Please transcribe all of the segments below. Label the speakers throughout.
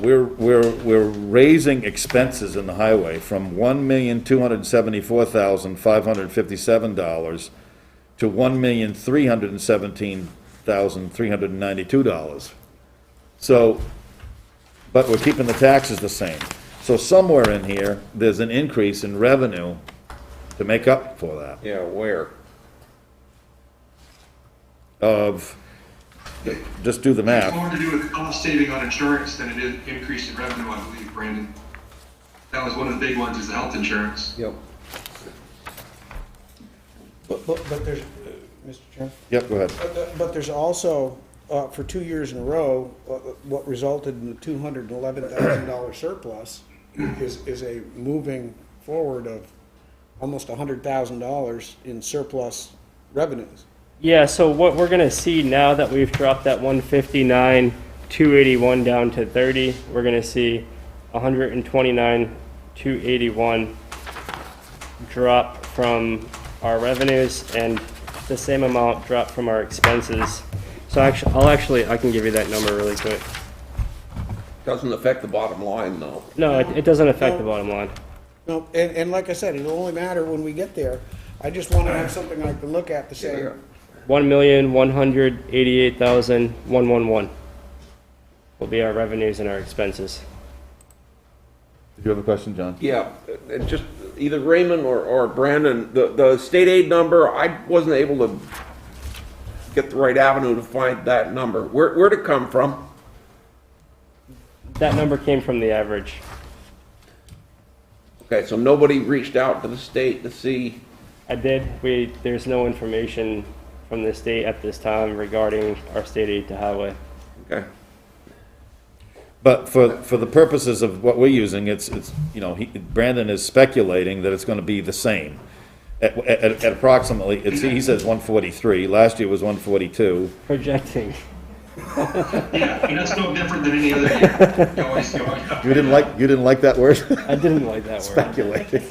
Speaker 1: We're, we're, we're raising expenses in the highway from one million, two hundred and seventy-four thousand, five hundred and fifty-seven dollars to one million, three hundred and seventeen thousand, three hundred and ninety-two dollars. So, but we're keeping the taxes the same. So somewhere in here, there's an increase in revenue to make up for that
Speaker 2: Yeah, where?
Speaker 1: of, just do the
Speaker 3: It's
Speaker 1: math.
Speaker 3: more to do with cost saving on insurance than it is increase in revenue, I believe, Brandon. That was one of the big ones, is the health insurance.
Speaker 2: Yep.
Speaker 4: But, but, but there's, uh, Mr. Chairman,
Speaker 1: Yep, go ahead.
Speaker 4: but, uh, but there's also, uh, for two years in a row, uh, what resulted in the two hundred and eleven thousand dollar surplus is, is a moving forward of almost a hundred thousand dollars in surplus revenues.
Speaker 5: Yeah, so what we're gonna see now that we've dropped that one fifty-nine, two eighty-one down to thirty, we're gonna see hundred and twenty-nine, two eighty-one drop from our revenues and the same amount drop from our expenses. So actually, I'll actually, I can give you that number really quick.
Speaker 2: Doesn't affect the bottom line, though.
Speaker 5: No, it, it doesn't affect the bottom line.
Speaker 4: No, and, and like I said, it'll only matter when we get there. I just wanna have something I can look at to say,
Speaker 5: One million, one hundred eighty-eight thousand, one one one will be our revenues and our expenses.
Speaker 1: Did you have a question, John?
Speaker 2: Yeah, and just either Raymond or, or Brandon, the, the state aid number, I wasn't able to get the right avenue to find that number. Where, where'd it come from?
Speaker 5: That number came from the average.
Speaker 2: Okay, so nobody reached out to the state to see,
Speaker 5: I did. We, there's no information from the state at this time regarding our state aid to highway.
Speaker 2: okay,
Speaker 1: But for, for the purposes of what we're using, it's, it's, you know, he, Brandon is speculating that it's gonna be the same. At, at, at approximately, it's, he says one forty-three, last year was one forty-two.
Speaker 5: Projecting.
Speaker 3: Yeah, and that's no different than any other year. You always go up.
Speaker 1: You didn't like, you didn't like that word?
Speaker 5: I didn't like that word.
Speaker 1: Speculating.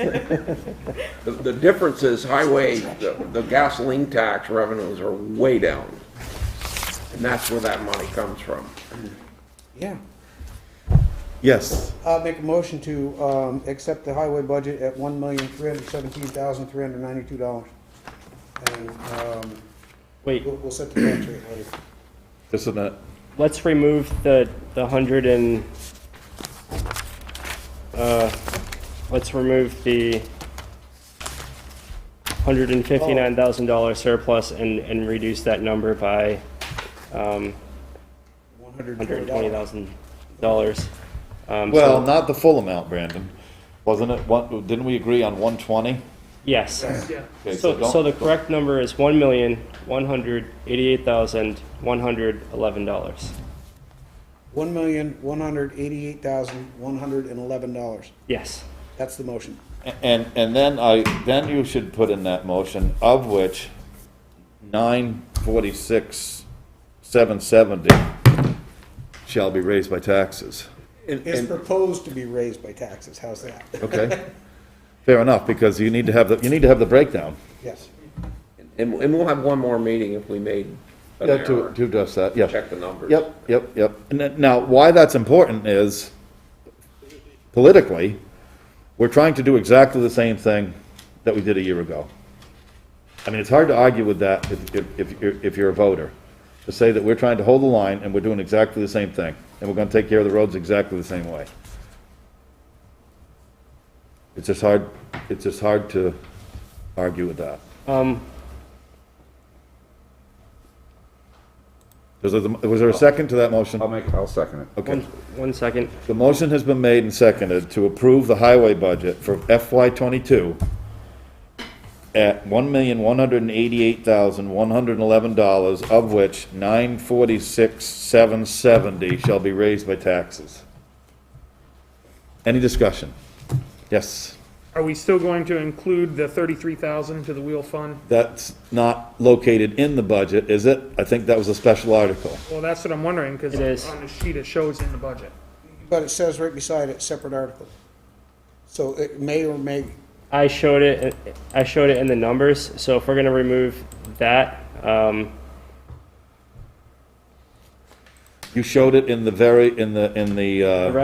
Speaker 2: the, the difference is highway, the, the gasoline tax revenues are way down. And that's where that money comes from.
Speaker 4: yeah.
Speaker 1: Yes,
Speaker 4: I'll make a motion to, um, accept the highway budget at one million, three hundred seventeen thousand, three hundred ninety-two dollars. And, um,
Speaker 5: Wait,
Speaker 4: we'll, we'll set the tax rate later.
Speaker 1: isn't it?
Speaker 5: let's remove the, the hundred and, uh, let's remove the hundred and fifty-nine thousand dollar surplus and, and reduce that number by, um,
Speaker 4: One hundred and
Speaker 5: hundred and twenty
Speaker 4: twenty dollars.
Speaker 5: thousand dollars.
Speaker 1: Well, not the full amount, Brandon. Wasn't it, one, didn't we agree on one twenty?
Speaker 5: Yes. So, so the correct number is one million, one hundred eighty-eight thousand, one hundred eleven dollars.
Speaker 4: One million, one hundred eighty-eight thousand, one hundred and eleven dollars.
Speaker 5: Yes.
Speaker 4: That's the motion.
Speaker 1: And, and then I, then you should put in that motion, of which nine forty-six, seven seventy shall be raised by taxes,
Speaker 2: And-
Speaker 4: It's
Speaker 2: and-
Speaker 4: proposed to be raised by taxes. How's that?
Speaker 1: okay? Fair enough, because you need to have, the you need to have the breakdown.
Speaker 4: Yes.
Speaker 2: And, and we'll have one more meeting if we made an
Speaker 1: Yeah, to,
Speaker 2: error.
Speaker 1: to address that, yeah.
Speaker 2: Check the numbers.
Speaker 1: Yep, yep, yep. And then- now, why that's important is politically, we're trying to do exactly the same thing that we did a year ago. I mean, it's hard to argue with that if, if- if, you're- if you're a voter, to say that we're trying to hold the line and we're doing exactly the same thing, and we're gonna take care of the roads exactly the same way. It's just hard, it's just hard to argue with that.
Speaker 5: Um,
Speaker 1: Was there, the- was there a second to that motion?
Speaker 2: Uh,
Speaker 6: I'll make, I'll second it.
Speaker 1: Okay.
Speaker 5: one, one second.
Speaker 1: The motion has been made and seconded to approve the highway budget for FY twenty-two at one million, one hundred and eighty-eight thousand, one hundred and eleven dollars, of which nine forty-six, seven seventy shall be raised by taxes. Any discussion? Yes,
Speaker 7: Are we still going to include the thirty-three thousand to the wheel fund?
Speaker 1: that's not located in the budget, is it? I think that was a special article.
Speaker 7: Well, that's what I'm wondering, because
Speaker 5: It is.
Speaker 7: on the sheet it shows in the budget.
Speaker 4: But it says right beside it, separate article. So it may or may,
Speaker 5: I showed it, I showed it in the numbers, so if we're gonna remove that, um,
Speaker 1: You showed it in the uh, very, in the, in the, uh.
Speaker 5: The rev-